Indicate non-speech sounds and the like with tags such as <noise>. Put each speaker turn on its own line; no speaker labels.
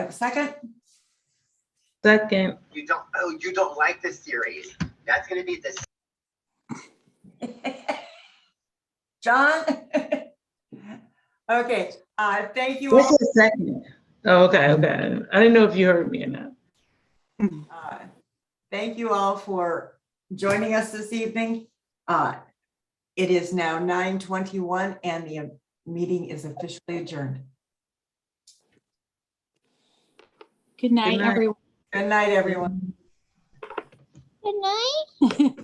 Have a Second,
Second,
You don't, oh, you don't like the series. That's gonna be the
John? <laughs> Okay, uh, thank you.
what's
all.
the second? Oh, okay, okay. I didn't know if you heard me or not.
Uh, Thank you all for joining us this evening. Uh, It is now nine twenty-one and the meeting is officially adjourned.
Good night,
night.
everyone.
Good night, everyone.
Good night.